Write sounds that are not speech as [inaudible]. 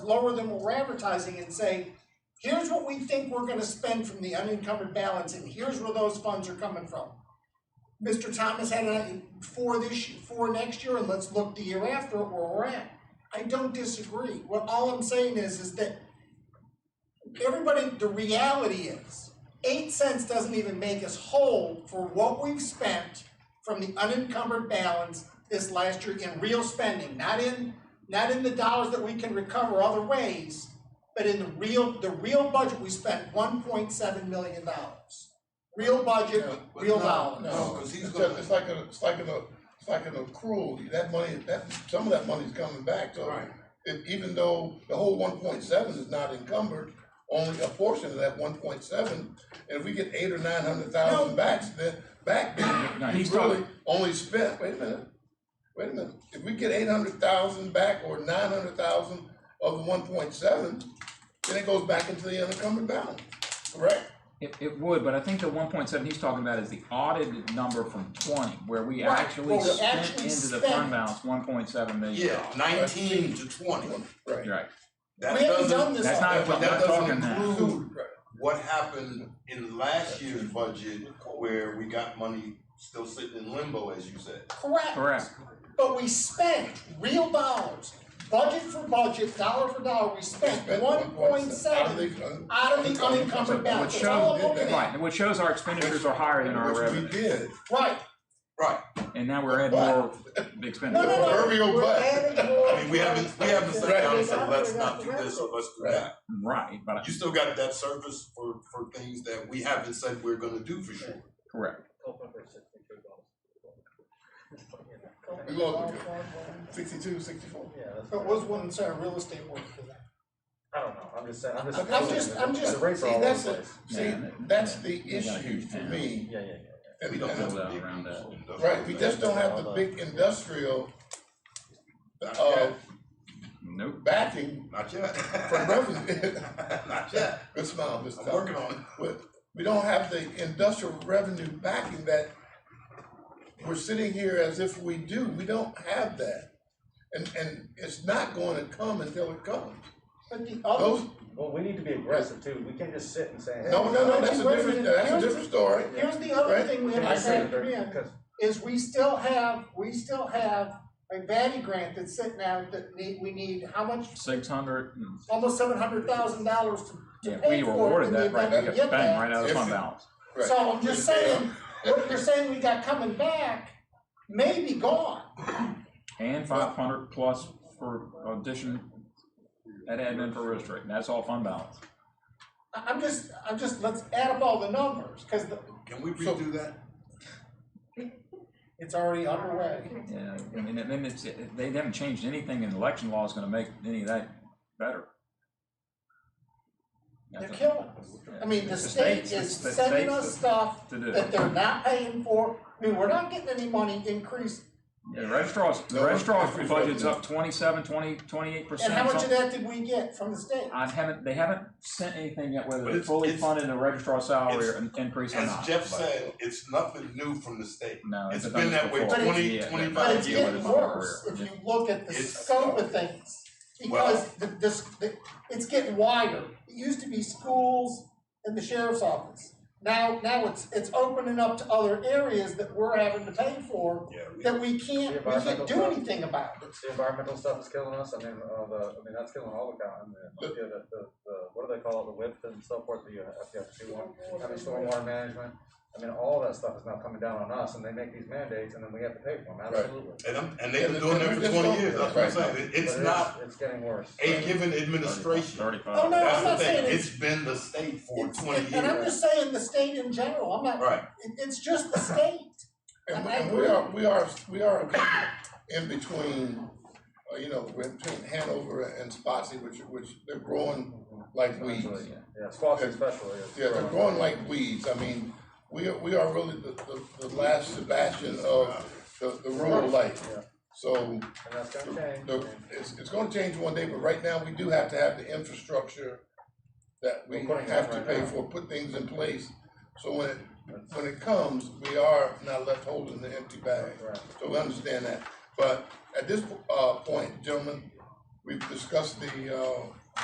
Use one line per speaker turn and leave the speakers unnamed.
lower than what we're advertising and say, here's what we think we're gonna spend from the unencumbered balance, and here's where those funds are coming from. Mr. Thomas had a, for this, for next year, and let's look the year after at where we're at. I don't disagree, what, all I'm saying is, is that everybody, the reality is, eight cents doesn't even make us whole for what we've spent from the unencumbered balance this last year in real spending, not in, not in the dollars that we can recover other ways, but in the real, the real budget, we spent one point seven million dollars. Real budget,
Yeah, but
real
no,
dollars.
No, cause he's
It's
gonna,
just- It's like a, it's like an, it's like an accrual, that money, that, some of that money's coming back, so.
Right.
If, even though the whole one point seven is not encumbered, only a portion of that one point seven, and if we get eight or nine hundred thousand backs, then, back,
No,
then we
he's
really
talking-
only spent, wait a minute. Wait a minute, if we get eight hundred thousand back or nine hundred thousand of the one point seven, then it goes back into the unencumbered balance, correct?
It, it would, but I think the one point seven he's talking about is the audited number from twenty, where we
Right,
actually
where we
spent
actually
into the
spent.
fund balance one point seven million.
yeah, nineteen to twenty,
Right.
Right,
that
We haven't
doesn't,
done this
that's
all.
not,
but
I'm
that
not
doesn't
talking that.
include
Right.
what happened in last year's budget where we got money still sitting in limbo, as you said.
Correct.
Correct,
But we spent real dollars, budget for budget, dollar for dollar, we spent
spent
one point seven
uh,
out of the unencumbered
which
balance, that's all I'm
shows,
looking
right,
at.
which shows our expenditures are higher than our
Which we
revenue,
did.
Right,
and now we're adding
But-
more
no, no,
expenditure.
no.
Proverbial
we're
butt.
adding more
I mean, we haven't, we haven't
expenses.
sat down and
Right.
said, let's not do this or let's do that.
Right, but, I-
You still got that service for, for things that we haven't said we're gonna do for sure.
correct,
We lost it. Sixty-two, sixty-four.
But was one, sorry, real estate work for that.
I don't know, I'm just saying, I'm just.
I'm just- I'm just-
The rates are all
see,
over
that's
the
a-
place.
See,
Yeah.
that's the
They got a
issue
huge
for
town.
me.
Yeah, yeah, yeah.
We
And-
don't have
and-
the big
Around that.
industrial
Right, we just don't have the big industrial, uh,
nope.
backing
Not yet.
from revenue.
[laughs]
[laughs]
Not yet.
Good smile, Mr.
I'm working on it.
But we don't have the industrial revenue backing that we're sitting here as if we do. We don't have that. And, and it's not going to come until it comes.
But the
Those,
other,
Well, we need to be aggressive too, we can't just sit and say. hey, uh,
no, no, no, that's a different, that's a different story.
here's the other
Right.
thing we
we can't
have to
just sit
factor
there,
in,
because-
is we still have, we still have a Batty grant that's sitting out that need, we need, how much?
Six hundred,
Almost seven hundred thousand dollars to
yeah,
pay
we
for it
awarded
in the
that, right,
event
we
we
got
get
bang
that.
right out of the
If
fund
you-
balance.
Right.
So I'm just saying, what you're saying we got coming back may be gone.
And five hundred plus for addition, at admin for real estate, and that's all fund balance.
I- I'm just, I'm just, let's add up all the numbers, cause the-
Can we redo that?
it's already underway.
Yeah, I mean, and then it's, they haven't changed anything in the election law is gonna make any of that better.
They're killing us. I mean, the state
states-
is
it's the
sending
states
us stuff
To do,
that
it.
they're not paying for. I mean, we're not getting any money increase.
the registrar's, the
No,
registrar's
it's-
budget's up twenty-seven, twenty, twenty-eight percent.
And how much of that did we get from the state?
I haven't, they haven't sent anything yet
But
whether they
it's-
fully
it's-
funded the registrar salary or
it's-
an increase or
As
not.
Jeff
but-
said, it's nothing new from the state.
No.
it's
they've
been
done this
that way
before.
20,
Yeah,
25
but
But it's
it's been
getting
this way for
worse if
forever.
you look at the
It's-
scope of things. Because the, this, the, it's getting wider. It used to be schools and the sheriff's office. Now, now it's, it's opening up to other areas that we're having to pay for
Yeah, we-
that we can't, we can't do anything about.
The environmental stuff is killing us, I mean, uh, the, I mean, that's killing all the county, the, the, the, the- what do they call it, the whip and so forth, the, uh, F F two one, I mean, stormwater management. I mean, all that stuff is now coming down on us, and they make these mandates, and then we have to pay for them, absolutely.
And I'm, and they've
Yeah,
been doing
but
that for
that's
twenty
not-
years, that's what I'm saying, It-
But
it's
it is-
not
It's getting worse.
a given administration,
Thirty-five.
Oh, no. I'm
that's
not
the
saying
thing,
it's-
it's been the state for
It's-
twenty
And I'm
years.
just saying the state in general, I'm not,
Right,
it, it's just the state.
And we,
I
and we are, we are, we are in between, uh, you know, we're between Hanover and Spotsy, which, which they're growing like weeds.
Essentially, yeah.
Yeah, squash especially is.
Yeah, they're growing like weeds. I mean, we are, we are really the, the, the last Sebastian of the, the rural life.
Yeah.
So,
And that's gonna
the-
change.
the, it's, it's gonna change one day, but right now, we do have to have the infrastructure that we
We're putting
have
it
to
right
pay
now.
for, put things in place. So when it, when it comes, we are not left holding the empty bag.
Right.
So we understand that. But at this, uh, point, gentlemen, We've discussed the, uh,